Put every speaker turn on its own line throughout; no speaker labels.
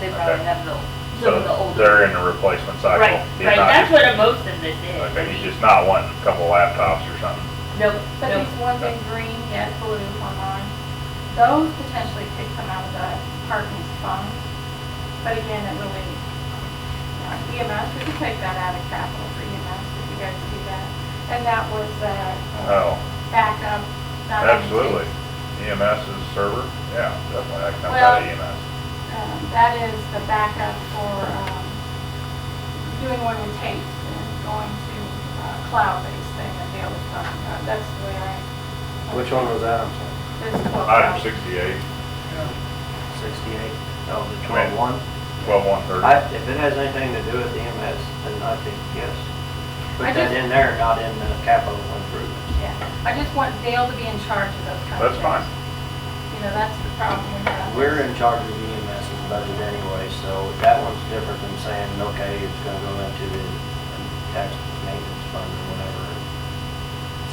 they probably
Okay.
have the, some of the
So
older.
they're in the replacement cycle.
Right,
He's
right,
not
that's what
just-
most of this is. I
Okay, he's
mean,
just not wanting a couple laptops or something.
No,
But
no,
these ones in green, red, blue on mine, those potentially could come out of the parking fund. But again, it really, uh, EMS, we could take that out of capital for EMS if you guys do that. And that was the uh,
Oh,
backup. not only takes,
absolutely. EMS is server, yeah, definitely, that comes
Well-
out of EMS.
um, That is the backup for um, doing one with tapes and going to uh, cloud-based thing that Dale was talking about. That's the way I.
Which one was that, I'm sorry?
This quote.
Item sixty-eight,
Sixty-eight, oh, the
Come in.
twelve-one?
twelve one thirty.
I, if it has anything to do with the EMS, then I think yes.
I
Put that
just-
in there, not in the capital improvements.
Yeah, I just want Dale to be in charge of those kind of
That's
things.
fine.
You know, that's the problem we have.
We're in charge of the E EMS budget anyway, so that one's different than saying, okay, it's gonna go into the tax maintenance fund or whatever.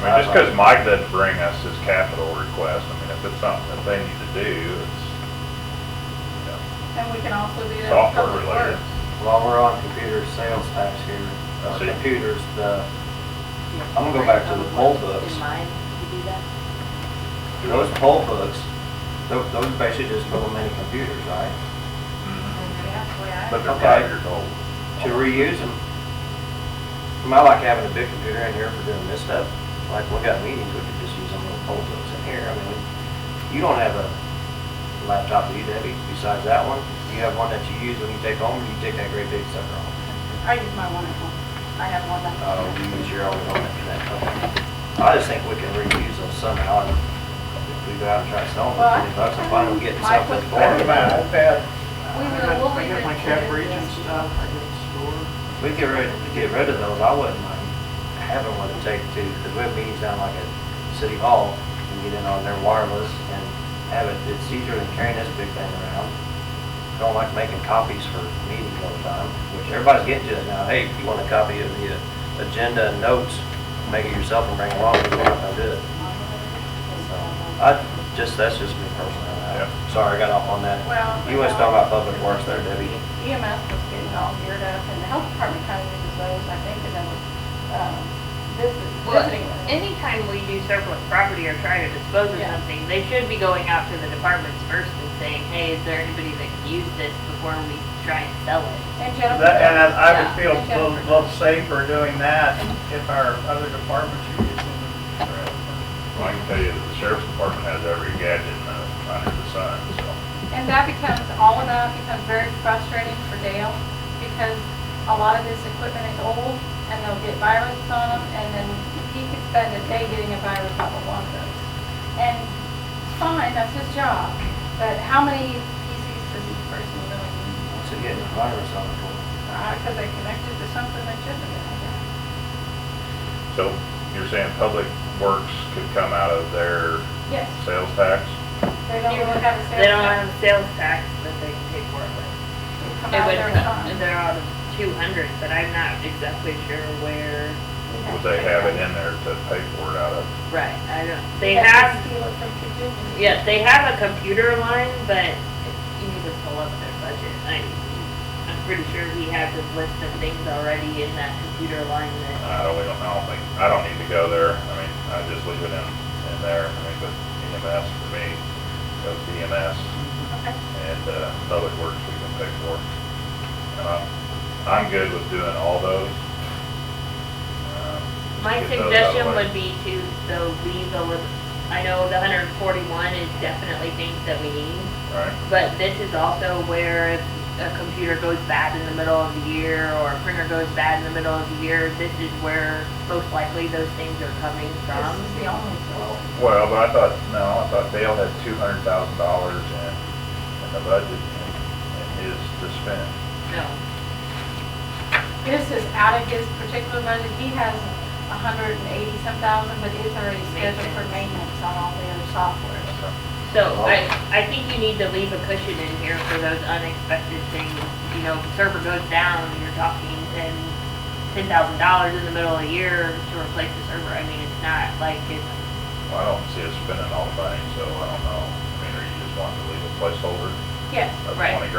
I mean, just because Mike doesn't bring us his capital request, I mean, if it's something that they need to do, it's, you know,
And we can also do that with
Software
public
related.
works. Mm-hmm.
While we're on computer sales tax here,
I
uh,
see.
computers, the,
Yeah.
I'm gonna go back to the
Public
poll
works
books.
In mind to do that.
those poll books, tho- those basically just little mini computers, right?
mhm.
Yeah, that's the way I-
but they're
Okay.
five years old.
To reuse them. I mean, I like having a big computer in here for doing this stuff. Like, we got meetings, we could just use them little poll books in here. I mean, you don't have a laptop, do you, Debbie, besides that one? You have one that you use when you take home, or you take that great big sucker home?
I use my one at home. I have one that.
Uh, you use your own one and that, okay. I just think we can reuse them somehow. and If we go out and try to sell them
Well, I-
for twenty bucks, I'm fine with getting
Mike
something
was-
for it.
We
I
will,
got-
we'll
I
leave
got
it.
my
to
cap
the-
reach and stuff, I got the store.
We get rid, we get rid of those, I wouldn't mind having one to take to, because we have meetings down like at City Hall, and get in on their wireless and have it, it's easier than carrying this big thing around. Don't like making copies for meetings all the time, which everybody's getting to it now, hey, if you want a copy of the uh, agenda and notes, make it yourself and bring it along, if you want to do it. So, I, just, that's just me personally,
Yeah.
I- sorry, I got off on that.
Well.
Uh, You was talking about public works there, Debbie.
EMS was getting all geared up and the health department kind of uses those, I think, and then was, um, visit-
Well,
visiting. with them.
anytime we do surplus property or try to dispose of
Yeah.
something, they should be going out to the departments first and saying, hey, is there anybody that can use this before we try and sell it?
And Jennifer.
That- And I- I would
Yeah,
feel
and
a little-
Jennifer.
little safer doing that if our other departments are using them. for-
Well, I can tell you that the sheriff's department has every gadget in the, under the sun, so.
And that becomes, all of that becomes very frustrating for Dale because a lot of this equipment is old and they'll get viruses on them and then he could spend a day getting a virus off of one of those. And it's fine, that's his job, but how many PCs does each person really need?
Once again, the virus on the board.
Because they connected to something that shouldn't have been. I guess.
So you're saying public works could come out of their
Yes,
sales tax?
they don't really have a sales.
They don't
tax.
have sales tax that they can pay for it with.
They come
It
out
would,
there and fund.
they're out of two hundred, but I'm not exactly sure where.
Would they have it in there to pay for it out of?
Right. I don't, they
Yes, you
have
Steal it from people.
Yeah, they have a computer line, but you need to pull up their budget. I, I'm pretty sure he has his list of things already in that computer line that,
I really don't know, I don't think, I don't need to go there, I mean, I just leave it in, in there, I mean, but EMS for me, goes to EMS,
Okay.
and, uh, public works we can pay for. And I'm, I'm good with doing all those. Um, just
my
get those out of the
suggestion
way.
would be to, though, leave the, lim- I know the hundred and forty-one is definitely things that we need,
All right,
but this is also where if a computer goes bad in the middle of the year, or a printer goes bad in the middle of the year, this is where most likely those things are coming
This
from.
is the only source.
well, but I thought, no, I thought Dale had two hundred thousand dollars in, in the budget, and, and his to spend.
No,
This is out of his particular budget, he has a hundred and eighty some thousand, but it's already scheduled for maintenance on all the other software.
So,
So I, I think you need to leave a cushion in here for those unexpected things. You know, server goes down, you're talking ten, ten thousand dollars in the middle of the year to replace the server. I mean, it's not like it's,
well, I don't see us spending all the money, so I don't know, I mean, are you just wanting to leave a placeholder
Yes.
of
Right.
twenty grand?